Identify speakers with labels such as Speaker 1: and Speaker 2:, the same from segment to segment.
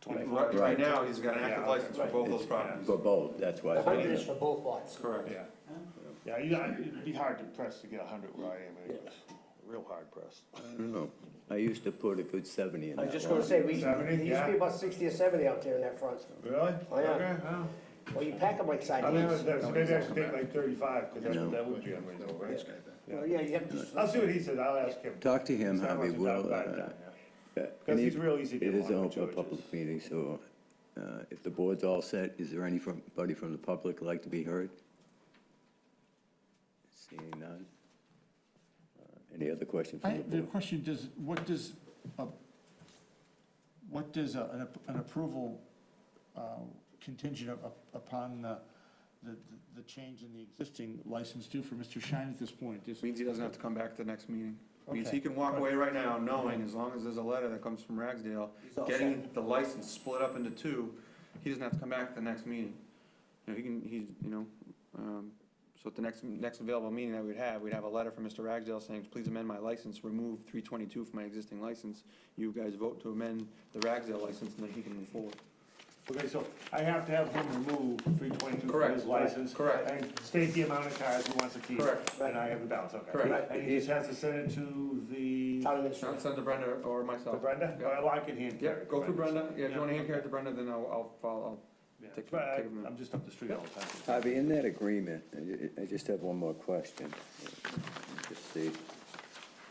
Speaker 1: 24.
Speaker 2: Right, right now, he's got an active
Speaker 1: Yeah,
Speaker 2: license for
Speaker 1: right.
Speaker 2: both those
Speaker 1: It's-
Speaker 2: properties.
Speaker 3: For both, that's why.
Speaker 4: Hundred is for both lots.
Speaker 2: Correct.
Speaker 1: Yeah. Yeah, you know, it'd be hard to press to get a hundred where I am anyways, real hard pressed.
Speaker 3: I don't know. I used to put a good seventy in
Speaker 4: I
Speaker 3: that
Speaker 4: was just gonna
Speaker 3: one.
Speaker 4: say, we, there
Speaker 1: Seventy,
Speaker 4: used to
Speaker 1: yeah.
Speaker 4: be about sixty or seventy out there in that front.
Speaker 1: Really?
Speaker 4: Oh, yeah.
Speaker 1: Okay, well,
Speaker 4: Well, you pack them like
Speaker 1: I mean,
Speaker 4: sardines.
Speaker 1: that's- maybe I should take like thirty-five, cause that, that would be unreasonable, right?
Speaker 4: Well, yeah, you have to,
Speaker 1: I'll see what he says, I'll ask him.
Speaker 3: Talk to him,
Speaker 1: It's not much
Speaker 3: Harvey,
Speaker 1: to
Speaker 3: we'll,
Speaker 1: talk about
Speaker 3: uh,
Speaker 1: that, yeah.
Speaker 3: uh,
Speaker 1: 'Cause
Speaker 3: any-
Speaker 1: he's real easy to
Speaker 3: It
Speaker 1: get
Speaker 3: is a
Speaker 1: along with,
Speaker 3: open
Speaker 1: George
Speaker 3: public meeting, so, uh, if the board's all set, is there anybody from the public like to be heard? Seeing none? Uh, Any other question
Speaker 5: I,
Speaker 3: from the
Speaker 5: the
Speaker 3: board?
Speaker 5: question does, what does, a- what does a- an ap- an approval uh, contingent up- up- upon the, the, the change in the existing license do for Mr. Shine at this point? Just-
Speaker 2: Means he doesn't have to come back to the next meeting. Means he
Speaker 5: Okay.
Speaker 2: can walk away right now knowing, as long as there's a letter that comes from Ragsdale,
Speaker 4: all
Speaker 2: getting the license split up into two, he doesn't have to come back to the next meeting. You know, he can, he's, you know, um, so at the next, next available meeting that we'd have, we'd have a letter from Mr. Ragsdale saying, please amend my license, remove three twenty-two from my existing license. You guys vote to amend the Ragsdale license and then he can move forward.
Speaker 1: Okay, so I have to have him remove three twenty-two from
Speaker 2: Correct,
Speaker 1: his license.
Speaker 2: correct.
Speaker 1: And state the amount of cars he wants to keep.
Speaker 2: Correct.
Speaker 1: And I have the balance, okay.
Speaker 2: Correct.
Speaker 1: And he just has to send it to the,
Speaker 4: town administrator.
Speaker 2: Send send to Brenda or
Speaker 1: to
Speaker 2: myself.
Speaker 1: Brenda?
Speaker 2: Yeah.
Speaker 1: Well, I can hand carry.
Speaker 2: Yep, go through Brenda, yeah, if you wanna
Speaker 1: Yeah.
Speaker 2: hand carry it to Brenda, then I'll, I'll follow,
Speaker 1: Yeah,
Speaker 2: Take-
Speaker 1: But I-
Speaker 2: take them.
Speaker 1: I'm just up the street all the time.
Speaker 3: Harvey, in that agreement, I ju- I just have one more question. Just see.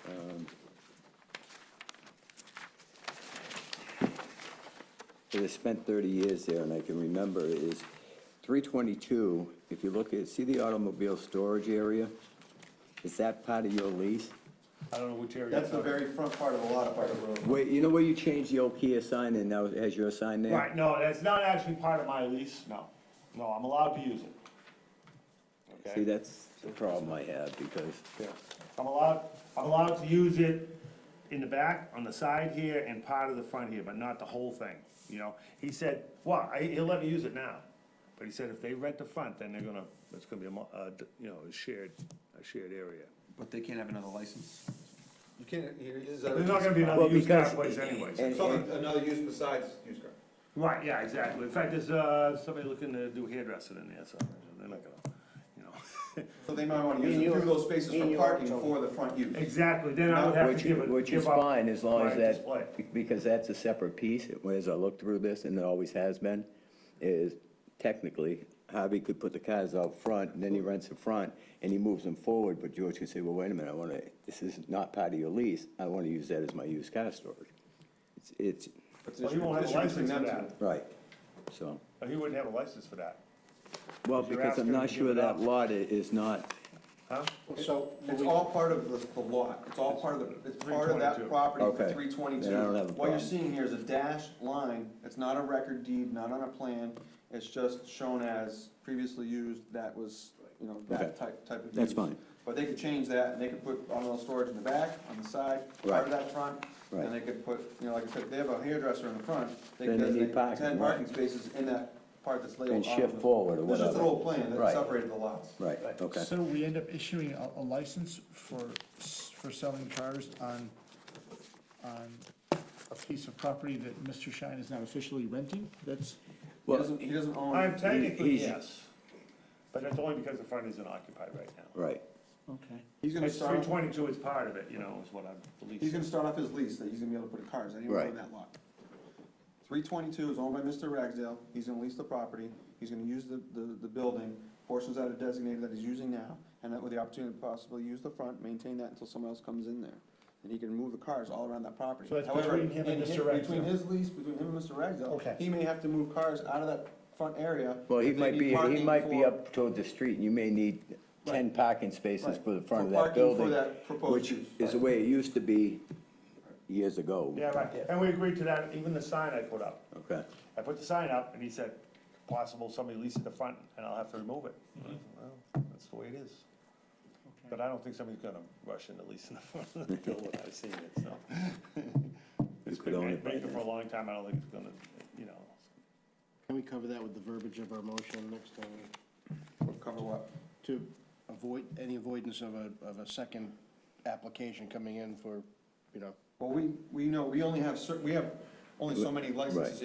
Speaker 3: Um, It has spent 30 years there, and I can remember is 322, if you look at, see the automobile storage area? Is that part of your lease?
Speaker 1: I don't know which area.
Speaker 2: That's the
Speaker 1: it's on.
Speaker 2: very front part of a lot of part of the road.
Speaker 3: Wait, you know where you changed the old Kia sign and now it has your sign there?
Speaker 1: Right, no, that's not actually part of my lease, no. No, I'm allowed to use it.
Speaker 3: See,
Speaker 1: Okay?
Speaker 3: that's the problem I have, because
Speaker 1: Yeah. I'm allowed, I'm allowed to use it in the back, on the side here, and part of the front here, but not the whole thing, you know? He said, well, I, he'll let me use it now, but he said if they rent the front, then they're gonna, it's gonna be a, mo- uh, d- you know, a shared, a shared area.
Speaker 2: But they can't have another license. You can't, here it is.
Speaker 1: There's not gonna be another
Speaker 3: Well,
Speaker 1: used car
Speaker 3: because-
Speaker 1: place anyways.
Speaker 3: and-
Speaker 2: So another use besides used car.
Speaker 1: Right, yeah, exactly. In fact, there's, uh, somebody looking to do hairdressing in there, so they're not gonna, you know.
Speaker 2: So they might wanna
Speaker 4: Me
Speaker 2: use
Speaker 4: and
Speaker 2: a few
Speaker 4: you-
Speaker 2: of those spaces
Speaker 4: me and
Speaker 2: for
Speaker 4: you
Speaker 2: parking
Speaker 4: are-
Speaker 2: for the front use.
Speaker 1: Exactly, then I would have
Speaker 3: Which,
Speaker 1: to give it,
Speaker 3: which is
Speaker 1: give up
Speaker 3: fine, as long as
Speaker 1: my display.
Speaker 3: that, because that's a separate piece, as I look through this, and it always has been, is technically, Javi could put the cars out front, and then he rents the front, and he moves them forward, but George can say, well, wait a minute, I wanna, this is not part of your lease, I wanna use that as my used car storage. It's, it's,
Speaker 2: But
Speaker 1: Well, you won't have a license for that.
Speaker 3: right, so,
Speaker 1: Oh, He wouldn't have a license for that,
Speaker 3: well,
Speaker 1: You're
Speaker 3: because
Speaker 1: asking
Speaker 3: I'm
Speaker 1: him
Speaker 3: not
Speaker 1: to
Speaker 3: sure
Speaker 1: give it
Speaker 3: that
Speaker 1: up.
Speaker 3: lot i- is not,
Speaker 1: huh?
Speaker 4: So,
Speaker 2: It's all part of the, the lot, it's all part of the, it's part of that
Speaker 1: 322.
Speaker 2: property for
Speaker 3: Okay.
Speaker 2: three
Speaker 3: Then I don't have
Speaker 2: twenty-two.
Speaker 3: a
Speaker 2: What you're
Speaker 3: problem.
Speaker 2: seeing here is a dashed line, it's not a record deed, not on a plan, it's just shown as previously used, that was, you know, that
Speaker 3: Okay.
Speaker 2: type, type of use.
Speaker 3: That's fine.
Speaker 2: But they could change that, and they could put on-road storage in the back, on the side, part
Speaker 3: Right.
Speaker 2: of that front,
Speaker 3: Right.
Speaker 2: and they could put, you know, like I said, if they have a hairdresser in the front, they
Speaker 3: Then
Speaker 2: could
Speaker 3: they need
Speaker 2: designate
Speaker 3: parking,
Speaker 2: ten
Speaker 3: right.
Speaker 2: parking spaces in that part that's labeled.
Speaker 3: and shift
Speaker 2: on-
Speaker 3: forward or
Speaker 2: This is just an
Speaker 3: whatever.
Speaker 2: old plan that
Speaker 3: Right.
Speaker 2: separated the lots.
Speaker 3: Right, okay,
Speaker 5: So we end up issuing a, a license for, s- for selling cars on, on a piece of property that Mr. Shine is not officially renting? That's,
Speaker 2: He doesn't, he doesn't own.
Speaker 1: I'm technically,
Speaker 3: he's-
Speaker 1: yes, but that's only because the front isn't occupied right now.
Speaker 3: right.
Speaker 5: okay.
Speaker 2: He's gonna
Speaker 1: It's three
Speaker 2: start,
Speaker 1: twenty-two is part of it, you know, is what I'm
Speaker 2: he's
Speaker 1: believing.
Speaker 2: gonna start off his lease that he's gonna be able to put cars anywhere on
Speaker 3: Right.
Speaker 2: that lot. Three twenty-two is owned by Mr. Ragsdale, he's gonna lease the property, he's gonna use the, the, the building, portions that are designated that he's using now, and that with the opportunity to possibly use the front, maintain that until someone else comes in there. And he can move the cars all around that property.
Speaker 5: So that's
Speaker 2: However,
Speaker 5: between him and
Speaker 2: in hi-
Speaker 5: Mr.
Speaker 2: Between
Speaker 5: Ragsdale.
Speaker 2: his lease, between him and Mr. Ragsdale,
Speaker 5: Okay.
Speaker 2: he may have to move cars out of that front area.
Speaker 3: Well, he
Speaker 2: if they
Speaker 3: might
Speaker 2: need
Speaker 3: be, he
Speaker 2: parking
Speaker 3: might be
Speaker 2: for-
Speaker 3: up toward the street, and you may need ten parking spaces
Speaker 2: Right.
Speaker 3: for the front of
Speaker 2: For
Speaker 3: that
Speaker 2: parking for
Speaker 3: building.
Speaker 2: that proposed use.
Speaker 3: Which is the way it used to be years ago.
Speaker 1: Yeah, right, and we agreed to that, even the sign I put up.
Speaker 3: Okay,
Speaker 1: I put the sign up, and he said, possible somebody leases the front, and I'll have to remove it. Well, that's the way it is. But I don't think somebody's gonna rush into leasing the front of the building, I've seen it, so. It's
Speaker 3: could
Speaker 1: been
Speaker 3: own it by
Speaker 1: vacant for a
Speaker 3: now.
Speaker 1: long time, I don't think it's gonna, you know,
Speaker 6: Can we cover that with the verbiage of our motion next time?
Speaker 2: Cover what?
Speaker 6: To avoid, any avoidance of a, of a second application coming in for, you know,
Speaker 2: Well, we, we know, we only have cer, we have only so many licenses